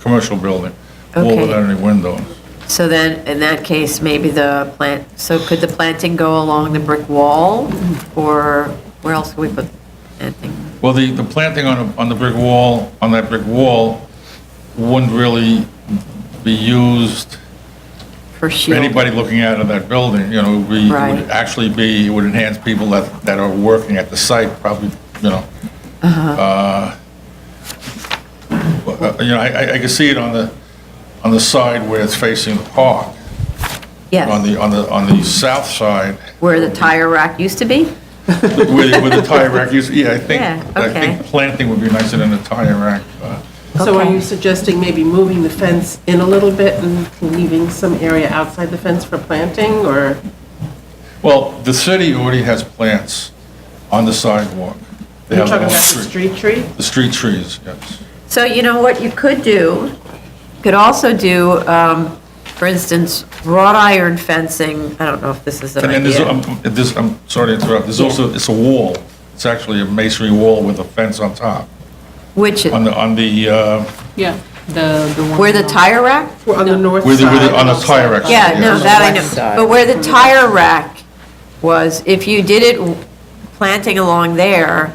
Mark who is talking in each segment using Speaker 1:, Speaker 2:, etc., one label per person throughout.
Speaker 1: commercial building, wall
Speaker 2: Okay.
Speaker 1: without any window.
Speaker 2: So then, in that case, maybe the plant, so could the planting go along the brick wall? Or where else could we put planting?
Speaker 1: Well, the, the planting on, a- on the brick wall, on that brick wall, wouldn't really be used
Speaker 2: For
Speaker 1: for
Speaker 2: shield?
Speaker 1: anybody looking out of that building, you know, it would be, it
Speaker 2: Right.
Speaker 1: would actually be, it would enhance people that, that are working at the site, probably, you know.
Speaker 2: Uh-huh.
Speaker 1: Uh, but, uh, You know, I, I- I can see it on the, on the side where it's facing the park, on
Speaker 2: Yes,
Speaker 1: the, on the, on the south side,
Speaker 2: where the tire rack used to be?
Speaker 1: where the, where the tire rack is, yeah, I think,
Speaker 2: Yeah,
Speaker 1: I
Speaker 2: okay.
Speaker 1: think planting would be nicer than a tire rack. uh,
Speaker 3: So are
Speaker 2: Okay.
Speaker 3: you suggesting maybe moving the fence in a little bit and leaving some area outside the fence for planting, or?
Speaker 1: Well, the city already has plants on the sidewalk. They
Speaker 3: You're
Speaker 1: have them
Speaker 3: talking about
Speaker 1: on
Speaker 3: the street tree?
Speaker 1: The street trees, yes.
Speaker 2: So you know what you could do? You Could also do, um, for instance, wrought iron fencing, I don't know if this is an
Speaker 1: And then there's,
Speaker 2: idea.
Speaker 1: I'm- this, I'm sorry to interrupt, there's also, it's a wall. It's actually a masonry wall with a fence on top,
Speaker 2: Which,
Speaker 1: on the, on the, uh,
Speaker 4: Yeah, the, the one.
Speaker 2: where the tire rack?
Speaker 3: Or On the north
Speaker 1: where the, where the- on
Speaker 3: side?
Speaker 1: the tire rack.
Speaker 2: Yeah, no,
Speaker 1: yes.
Speaker 2: that I
Speaker 5: west side.
Speaker 2: know. But where the tire rack was, if you did it planting along there,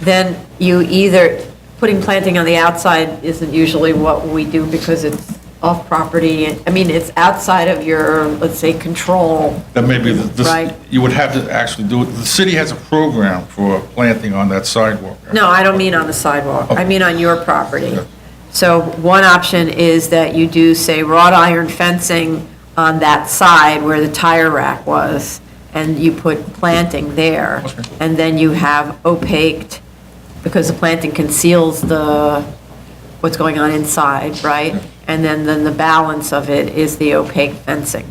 Speaker 2: then you either, putting planting on the outside isn't usually what we do because it's off property. I mean, it's outside of your, let's say, control.
Speaker 1: That may be, the- this,
Speaker 2: Right.
Speaker 1: you would have to actually do it. The city has a program for planting on that sidewalk.
Speaker 2: No, I don't mean on the sidewalk. I mean on your property. So one option is that you do, say, wrought iron fencing on that side where the tire rack was, and you put planting there.
Speaker 1: Okay.
Speaker 2: And then you have opaque, because the planting conceals the, what's going on inside, right? And then, then the balance of it is the opaque fencing.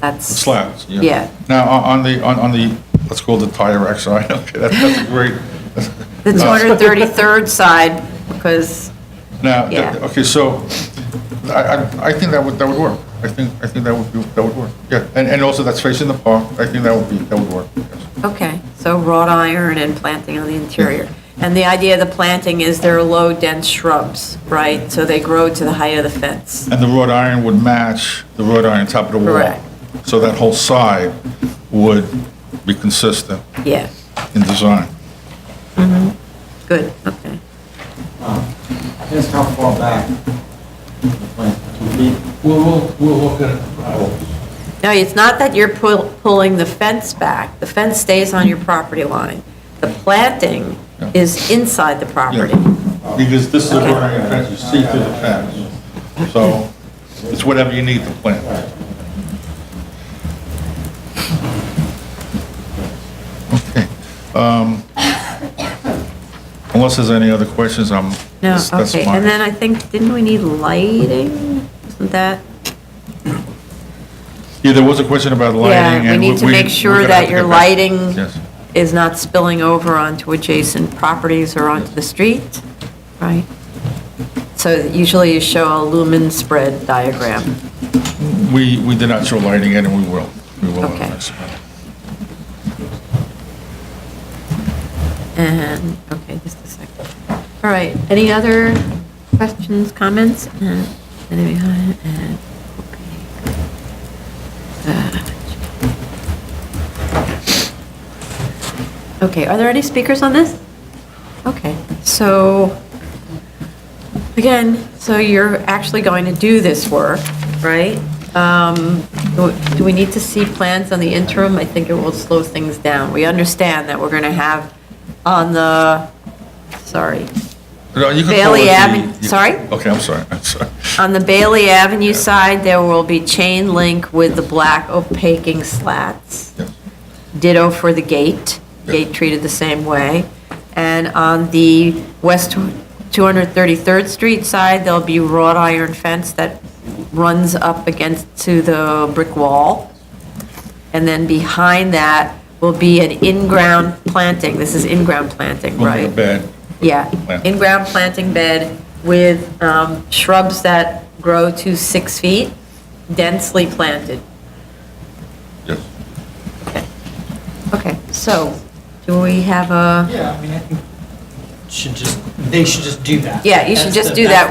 Speaker 2: That's.
Speaker 1: Slabs, yeah.
Speaker 2: Yeah.
Speaker 1: Now, on on the, on on the, let's call it the tire rack side, okay, that- that's a great.
Speaker 2: The
Speaker 1: Uh,
Speaker 2: 233rd side, because
Speaker 1: Now, th-
Speaker 2: Yeah.
Speaker 1: okay, so I, I, I think that would, that would work. I think, I think that would be, that would work, yeah. And, and also that's facing the park, I think that would be, that would work. yes.
Speaker 2: Okay, so wrought iron and planting on the interior. And the idea of the planting is they're low dense shrubs, right? So they grow to the height of the fence.
Speaker 1: And the wrought iron would match the wrought iron top of the wall.
Speaker 2: Correct.
Speaker 1: So that whole side would be consistent
Speaker 2: Yeah,
Speaker 1: in design.
Speaker 2: good, okay.
Speaker 6: Just how far back? Like two feet?
Speaker 7: We'll, we'll, we'll look at it. I will.
Speaker 2: No, it's not that you're pull- pulling the fence back. The fence stays on your property line. The planting is inside the property.
Speaker 1: Because this is a wrought iron fence, you see through the fence. So it's whatever you need to plant. Okay. um, Unless there's any other questions, I'm,
Speaker 2: No,
Speaker 1: that's that's
Speaker 2: okay, and then
Speaker 1: fine.
Speaker 2: I think, didn't we need lighting? Isn't that?
Speaker 1: Yeah, there was a question about lighting.
Speaker 2: Yeah, we
Speaker 1: and
Speaker 2: need to
Speaker 1: we-
Speaker 2: make
Speaker 1: we're
Speaker 2: sure
Speaker 1: gonna have
Speaker 2: that
Speaker 1: to
Speaker 2: your
Speaker 1: get back-
Speaker 2: lighting
Speaker 1: Yes.
Speaker 2: is not spilling over onto adjacent properties or onto the street, right? So usually you show a lumen spread diagram.
Speaker 1: We, we did not show lighting yet, and we will. We will. on
Speaker 2: Okay.
Speaker 1: this.
Speaker 2: And, okay, just a second. All right, any other questions, comments? And- and we- and- Uh, Okay, are there any speakers on this? Okay, so, again, so you're actually going to do this work, right? Um, Do do we need to see plans on the interim? I think it will slow things down. We understand that we're going to have on the, sorry,
Speaker 1: No, you can call
Speaker 2: Bailey
Speaker 1: it the-
Speaker 2: Avenue-
Speaker 1: you-
Speaker 2: sorry? Um,
Speaker 1: Okay, I'm sorry, I'm sorry.
Speaker 2: on the Bailey Avenue side, there will be chain link with the black opaquing slats.
Speaker 1: Yes.
Speaker 2: Ditto for the gate, gate treated the same way. And on the west 233rd Street side, there'll be wrought iron fence that runs up against to the brick wall. And then behind that will be an in-ground planting, this is in-ground planting,
Speaker 1: We'll make a
Speaker 2: right?
Speaker 1: bed.
Speaker 2: Yeah,
Speaker 1: Plant.
Speaker 2: in-ground planting bed with um, shrubs that grow to six feet, densely planted.
Speaker 1: Yes.
Speaker 2: Okay, so do we have a,
Speaker 6: Yeah, I mean, I think
Speaker 5: should just, they should just do that.
Speaker 2: Yeah, you should
Speaker 5: That's
Speaker 2: just
Speaker 5: the-
Speaker 2: do
Speaker 5: that's
Speaker 2: that